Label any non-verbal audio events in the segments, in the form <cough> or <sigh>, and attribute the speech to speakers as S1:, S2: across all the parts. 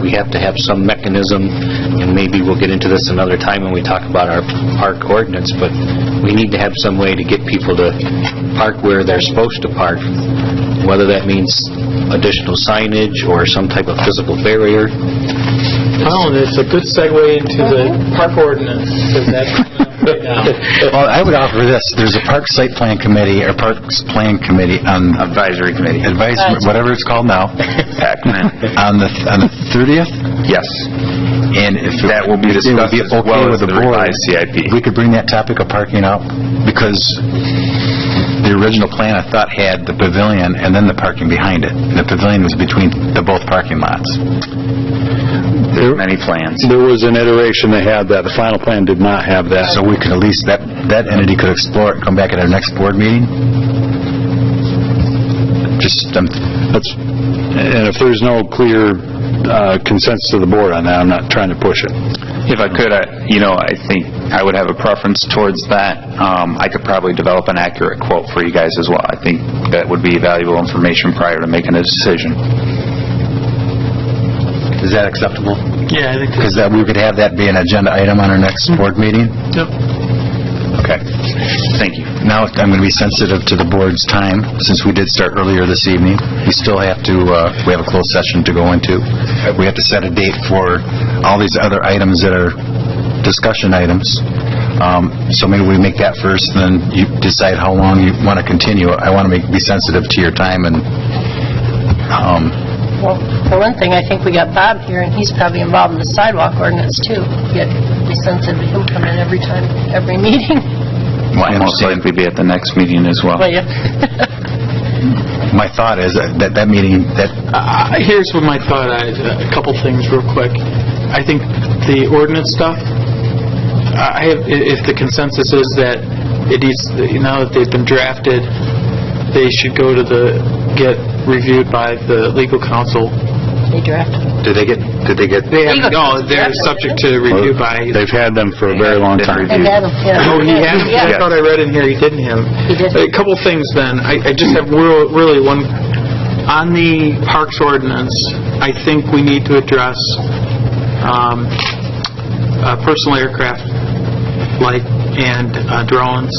S1: we have to have some mechanism, and maybe we'll get into this another time when we talk about our park ordinance, but we need to have some way to get people to park where they're supposed to park, whether that means additional signage or some type of physical barrier.
S2: Colin, it's a good segue into the park ordinance, because <laughs> that's coming up right now.
S3: Well, I would offer this, there's a park site plan committee, or parks plan committee, on... Advisory committee. Advisory, whatever it's called now,
S1: <laughs>
S3: on the, on the 30th,
S4: Yes,
S3: and if... it-
S4: That will be
S3: if it would
S4: discussed as well as
S3: okay with
S4: the
S3: board,
S4: revised CIP.
S3: We could bring that topic of parking up, because the original plan, I thought, had the pavilion and then the parking behind it. The pavilion was between the both parking lots.
S4: many plans.
S5: There was an iteration that had that. The final plan did not have that.
S3: So we could at least, that, that entity could explore it, come back at our next board meeting? Just, um,
S5: That's, and if there's no clear uh, consensus of the board on that, I'm not trying to push it.
S4: If I could, I- you know, I think I would have a preference towards that. Um, I could probably develop an accurate quote for you guys as well. I think that would be valuable information prior to making a decision.
S3: is that acceptable?
S2: Yeah, I think
S3: Because that, we could have that be an agenda item on our next board meeting? Okay.
S4: Thank you.
S3: Now, I'm going to be sensitive to the board's time, since we did start earlier this evening. We still have to, uh, we have a closed session to go into. Uh, We have to set a date for all these other items that are discussion items. Um, So maybe we make that first, then you decide how long you want to continue. I want to make, be sensitive to your time and, um,
S6: Well, for one thing, I think we got Bob here, and he's probably involved in the sidewalk ordinance, too. Yet, we sense that him come in every time, every <laughs> meeting.
S3: I
S4: Most
S3: understand.
S4: likely be at the next meeting as well.
S6: Well, yeah.
S3: my thought is that that meeting, that
S2: Uh, Here's what my thought, I- a couple things real quick. I think the ordinance stuff, I have, i- if the consensus is that it needs, now that they've been drafted, they should go to the, get reviewed by the legal counsel.
S6: They drafted.
S3: Did they get, did they get,
S2: They have,
S6: Legal
S2: no,
S6: counsel
S2: they're
S6: drafted,
S2: subject to review by...
S5: They've had them for a very long time.
S6: And Adam, yeah.
S2: Oh, he has, I
S6: Yeah,
S2: thought I read in here he didn't have.
S6: he did.
S2: A couple things then. I I just have real- really one, on the parks ordinance, I think we need to address um, uh, personal aircraft, like, and uh, drones.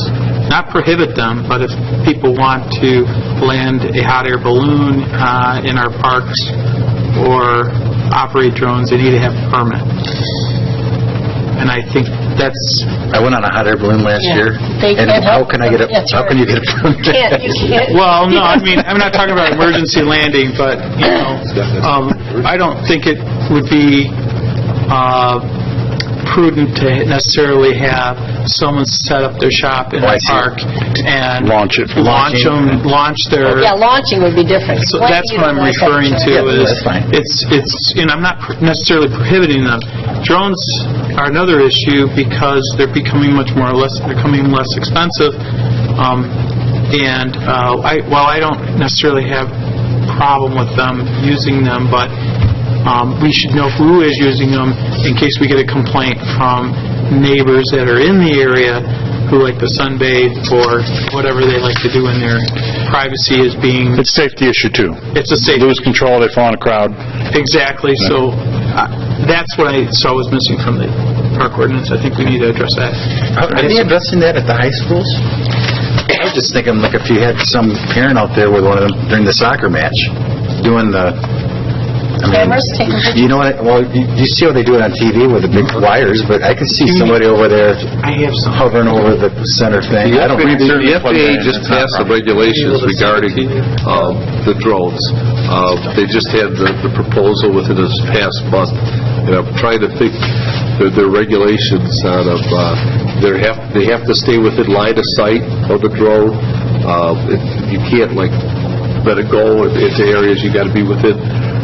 S2: Not prohibit them, but if people want to land a hot air balloon uh, in our parks or operate drones, they need to have a permit. And I think that's
S3: I went on a hot air balloon last
S6: Yeah.
S3: year.
S6: They
S3: and
S6: can't
S3: how
S6: help-
S3: can I get a,
S6: That's
S3: how can you
S6: right.
S3: get a permit? <laughs>
S6: Can't, you can't.
S2: Well, no, I mean, I'm not talking about emergency landing, but, you know, um, I don't think it would be uh, prudent to necessarily have someone set up their shop in
S3: Oh, I
S2: a
S3: see.
S2: park and...
S5: Launch it.
S2: Launch 'em, launch their...
S6: Yeah, launching would be different.
S2: So
S6: Why do
S2: that's
S6: you
S2: what I'm
S6: like that
S2: referring
S6: term?
S2: to is,
S3: that's fine.
S2: it's, it's, and I'm not pr- necessarily prohibiting them. Drones are another issue because they're becoming much more, less, they're becoming less expensive. Um, And uh, I, while I don't necessarily have problem with them using them, but um, we should know who is using them in case we get a complaint from neighbors that are in the area who like to sunbathe or whatever they like to do in their privacy is being
S5: It's a safety issue, too.
S2: it's a safe,
S5: Lose control, they fall in a crowd.
S2: exactly, so uh, that's what I saw was missing from the park ordinance. I think we need to address that.
S3: Are they addressing that at the high schools? I was just thinking, like, if you had some parent out there with one of them during the soccer match, doing the... I mean,
S6: Cameras taking pictures.
S3: You know what, well, you you see how they do it on TV with the big wires, but I could see somebody over there
S2: I have some.
S3: hovering over the center thing. I don't think they're-
S7: The FAA just passed the regulations regarding uh, the drones. Uh, They just had the the proposal within this past month, and I'm trying to think, their- their regulations out of, uh, they have, they have to stay within line of sight of the drone. Uh, if- You can't like let it go if- into areas, you got to be within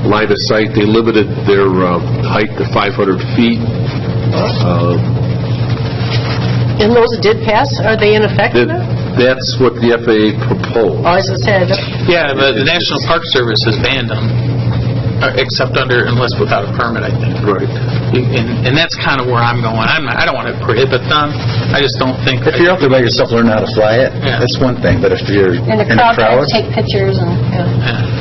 S7: line of sight. They limited their uh, height to 500 feet. Uh,
S6: And those that did pass, are they in effect
S7: that-
S6: now?
S7: That's what the FAA proposed.
S6: Oh, as I said,
S2: Yeah, the the National Park Service has banned them, uh, except under, unless without a permit, I think.
S7: Right.
S2: And and that's kind of where I'm going. I'm not, I don't want to prohibit them. I just don't think.
S3: If you're out there by yourself learning how to fly it,
S2: Yeah.
S3: that's one thing, but if you're
S6: and the crowd tried to take pictures and, yeah.
S2: Yeah.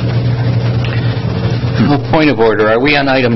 S1: Point of order, are we on item